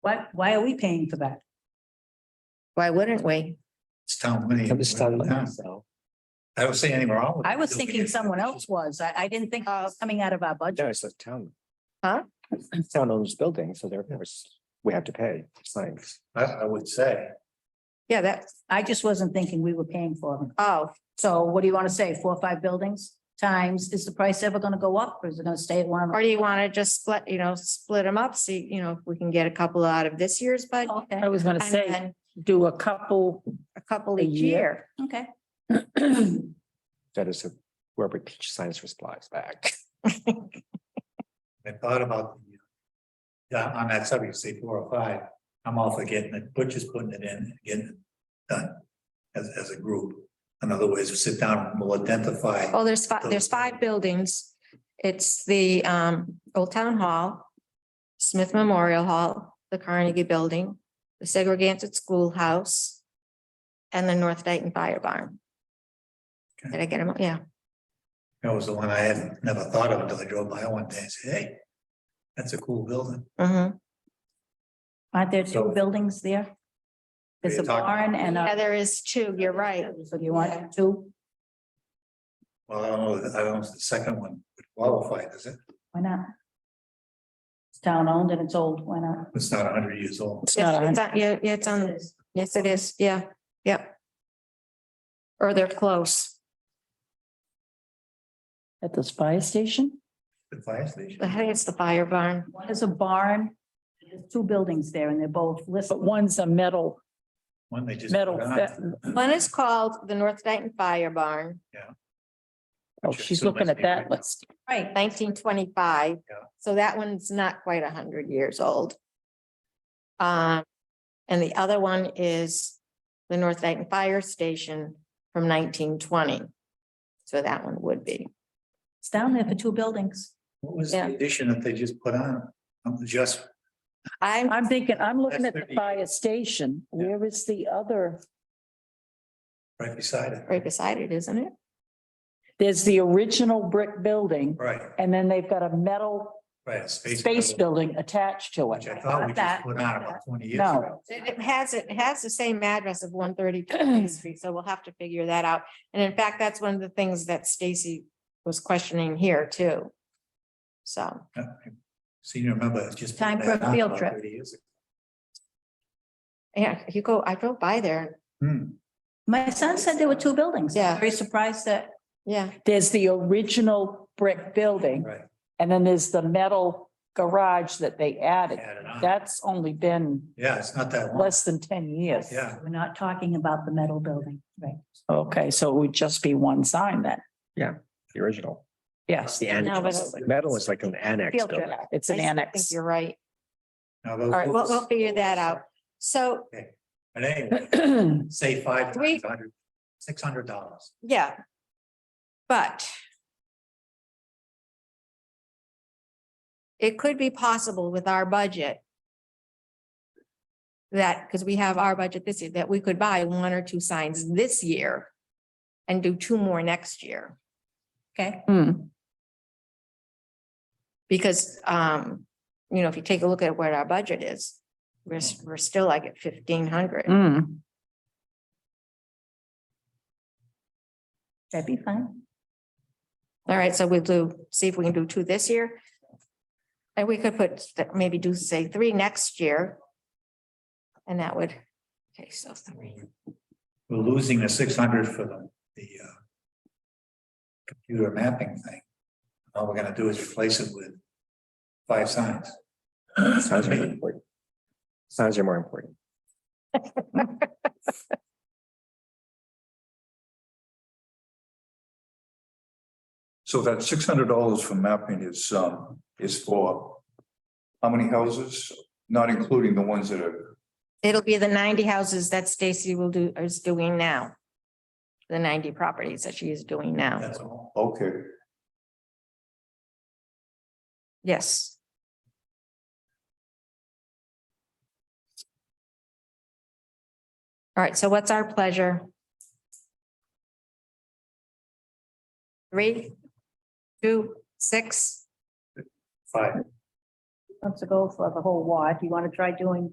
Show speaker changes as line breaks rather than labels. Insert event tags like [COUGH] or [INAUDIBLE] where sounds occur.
Why, why are we paying for that?
Why wouldn't we?
It's town money.
That was done by myself.
I don't see anything wrong with it.
I was thinking someone else was. I, I didn't think it
Oh.
was coming out of our
No,
budget.
it's a town.
Huh?
It's Town owns building, so therefore it's- we have to pay. It's like,
I, I would say.
Yeah, that's,
I just wasn't thinking we were paying for them.
oh,
So what do you want to say? Four, or five buildings times, is the price ever going to go up or is it going to stay at one?
or do you want to just split, you know, split them up? See, you know, if we can get a couple out of this year's budget.
Okay,
I was gonna
and
say,
then
do a couple,
A couple
a
each
year.
year.
okay. [CLEARS THROAT]
that is wherever peach signs for supplies back. [LAUGHS]
I thought about. the, uh, Yeah, on that subject, say four or five, I'm all for getting it, Butcher's putting it in, and getting it done. As, as a group, in other words, we sit down and we'll identify.
Oh, there's five, there's five buildings. It's the um Old Town Hall, Smith Memorial Hall, the Carnegie Building, the Segregated Schoolhouse, and the North Dayton Fire Barn.
Okay.
Did I get them? all? Yeah.
That was the one I had never thought of until I drove by one day and said, hey, that's a cool building.
Mhm.
Aren't there two
So-
buildings there? There's a
You're talking-
barn and
Yeah,
a.
there is two. You're right.
So do you want two?
Well, I don't know, I don't, know if the second one would qualify, does it?
Why not? It's town owned and it's old. Why not?
It's not hundred years old.
it's not
Yeah,
a
it's
hundred,
on- yeah, yeah, it's on, yes, it is. Yeah, yep. Or they're close.
at this fire station?
The fire station.
I think it's the fire barn.
One is a barn. There's two buildings there and they're both listed.
But one's a metal,
One they just.
metal,
put on.
fa-
One is called the North Dayton Fire Barn,
oh,
Sure,
she's
so it
looking
must
at
be
that
right.
list.
Right.
nineteen twenty-five.
Yeah.
So that one's not quite hundred years old. Um, and the other one is the North Dayton Fire Station from nineteen twenty. So that one would be.
It's down there for two buildings.
What was
Yeah.
the addition that they just put on? Um, Just,
I'm,
I'm thinking, I'm looking at
That's 30.
the fire station.
Yeah.
Where is the other?
right beside it,
right beside it, isn't it?
There's the original brick building
right,
and then they've got a metal
right. Space
space building attached to
Which
it.
I thought we just put on about twenty years
No.
ago.
It it has, it has the same address of one
[CLEARS THROAT]
thirty-two Main Street, so we'll have to figure that out. And in fact, that's one of the things that Stacy was questioning here too. So,
Senior member just. put
Time for
that
a
on
field
about
trip.
30 years ago.
yeah, you go, I drove by there,
Hmm,
My son said there were two buildings.
Yeah.
Very surprised that
yeah.
There's the original brick building
right.
and then there's the metal garage that they added.
Added on.
That's only been
Yeah, it's not that long.
less than ten years.
Yeah.
we're not talking about the metal building. Right.
Okay, so it would just be one sign then.
The original.
Yes,
The
No, but
annex.
it's-
Metal is like an annex
Field trip.
building.
it's an
I still think
annex.
You're right.
Now those-
All right, we'll, we'll figure that out. So,
But anyway,
嗯
say five
Three-
times hundred, six hundred dollars.
yeah. But it could be possible with our budget that, because we have our budget this year, that we could buy one or two signs this year and do two more next year.
Okay.
Hmm,
Because, um, you know, if you take a look at what our budget is, we're, s- we're still like at fifteen hundred.
hmm.
That'd be fine.
All right, so we'll do, see if we can do two this year. And we could put, th- maybe do, say, three next year. And that would, okay, so three.
We're losing the six hundred for the, the, uh. Computer mapping thing. All we're gonna do is replace it with five signs.
Signs are more important. Signs are more important.
So that six hundred dollars for mapping is, um, is for how many houses, not including the ones that are,
It'll be the ninety houses that Stacy will do, is doing now. The ninety properties that she is doing now.
That's all.
okay.
Yes, all right, so what's our pleasure? Three, two, six?
Five.
Let's go for the whole wad. You want to try doing